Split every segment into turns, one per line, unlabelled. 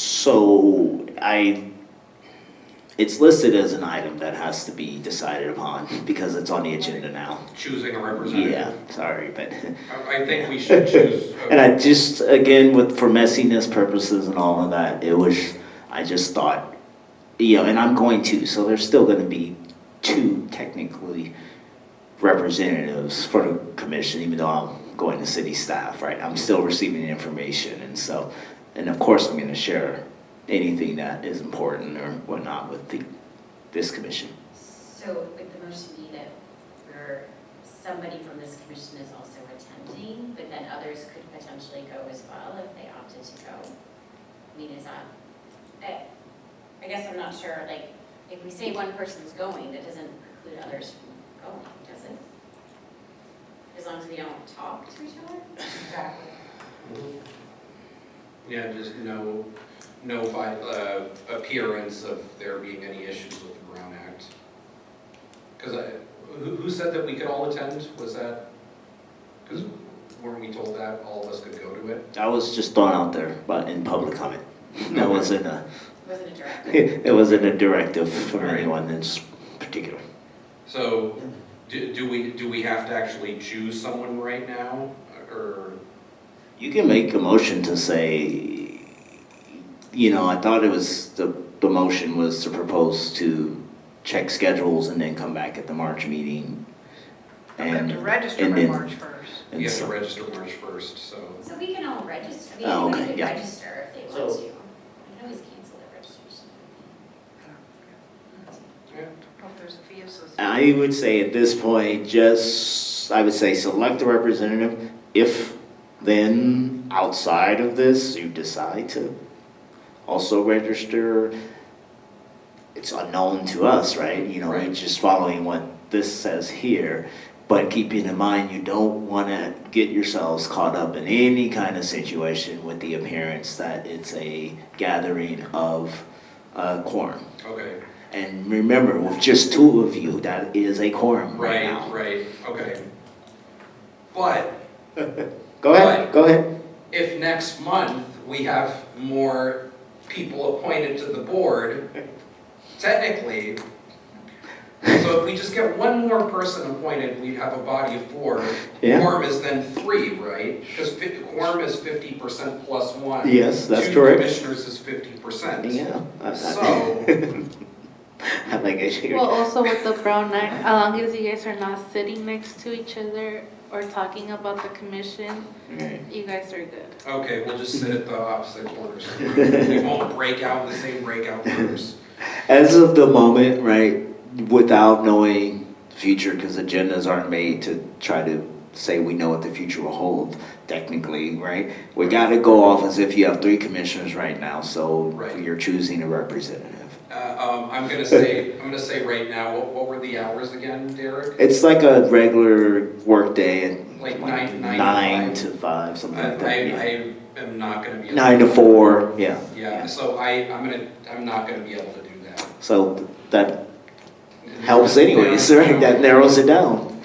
So I, it's listed as an item that has to be decided upon because it's on the agenda now.
choosing a
Yeah,
representative.
sorry, but,
I, I think we should choose. a-
and I just, again, with, for messiness purposes and all of that, it was, I just thought, you know, and I'm going to, so there's still gonna be two technically representatives for the commission, even though I'm going to city staff, right? I'm still receiving the information, and so, and of course, I'm gonna share anything that is important or whatnot with the, this commission.
So would the motion be that we're, somebody from this commission is also attending, but then others could potentially go as well if they opted to go? I mean, is that, I, I guess I'm not sure, like, if we say one person's going, that doesn't preclude others from going, does it? As long as we don't talk to each other?
Exactly.
Yeah, just no, no vi- uh, appearance of there being any issues with the Brown Act. Because I, who, who said that we could all attend? Was that? Because weren't we told that all of us could go to it?
I was just thrown out there, but in public comment, that wasn't a,
Wasn't a direct,
It wasn't a directive from
Right.
anyone in s- particular.
So do, do we, do we have to actually choose someone right now? Or,
You can make a motion to say, you know, I thought it was, the, the motion was to propose to check schedules and then come back at the March meeting.
I have
And,
to register
and
by
then-
March first.
and
you have to
so-
register March 1st, so.
so we can all register, I mean,
Oh,
anybody
okay,
could
yeah.
register if they want to.
So-
We can always cancel their registration.
If there's a fee associated.
I would say at this point, just, I would say select a representative. If then, outside of this, you decide to also register, it's unknown to us, right? You know,
Right.
it's just following what this says here. But keeping in mind, you don't want to get yourselves caught up in any kind of situation with the appearance that it's a gathering of a quorum.
Okay,
And remember, with just two of you, that is a quorum right,
right,
now.
right, okay. But
Go ahead,
Right.
go ahead.
if next month we have more people appointed to the board, technically, so if we just get one more person appointed, we'd have a body of four.
Yeah.
Quorum is then three, right? Because quorum is fifty percent plus one.
Yes, that's
Two
correct.
commissioners is fifty percent.
Yeah, I, I,
So-
I think I should.
Well, also with the brown act, as long as you guys are not sitting next to each other or talking about the commission,
Right.
you guys are good.
Okay, we'll just sit at the opposite corners. We won't break out in the same breakout groups.
As of the moment, right, without knowing future, because agendas aren't made to try to say we know what the future will hold, technically, right? We got to go off as if you have three commissioners right now, so
Right.
you're choosing a representative.
Uh, um, I'm gonna say, I'm gonna say right now, what, what were the hours again, Derek?
It's like a regular workday and
Like nine- nine to
nine
five.
to five, something
I,
like that. yeah.
I, I am not gonna be. able-
Nine to four, yeah.
Yeah, so I, I'm gonna, I'm not gonna be able to do that.
So that helps anyways, right? That narrows it down.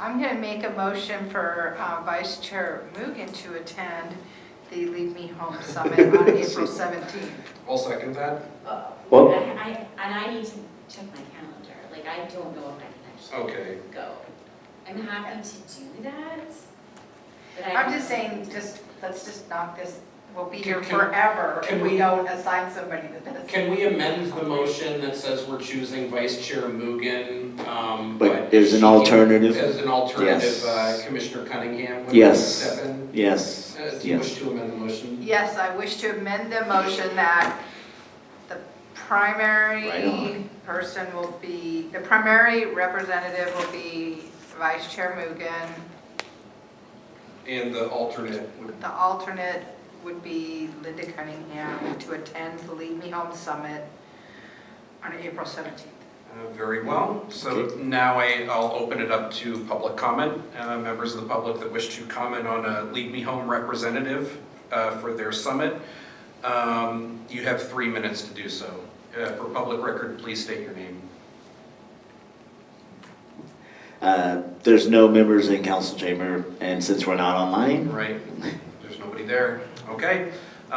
I'm gonna make a motion for uh, Vice Chair Mugen to attend the Leave Me Home Summit on April seventeenth.
I'll second that,
Well-
I, I- and I need to check my calendar, like, I don't know if I can actually
okay.
go. I'm happy to do that, but I.
I'm just saying, just, let's just knock this, we'll be here
Can- can-
forever
can
if we
we-
don't assign somebody to this.
Can we amend the motion that says we're choosing Vice Chair Mugen, um, but.
But there's an
she-
alternative.
As an alternative,
Yes.
uh, Commissioner Cunningham would
Yes.
step in.
Yes,
Uh, do you wish
yes.
to amend the motion?
Yes, I wish to amend the motion that the
Right
primary
on.
person will be, the primary representative will be Vice Chair Mugen.
And the alternate would,
The alternate would be Linda Cunningham to attend the Lead Me Home Summit on April 17th.
uh, very well. So now I, I'll open it up to public comment, uh, members of the public that wish to comment on a Lead Me Home representative, uh, for their summit. Um, you have three minutes to do so. Uh, for public record, please state your name.
Uh, there's no members in council chamber, and since we're not online,
Right, there's nobody there. Okay,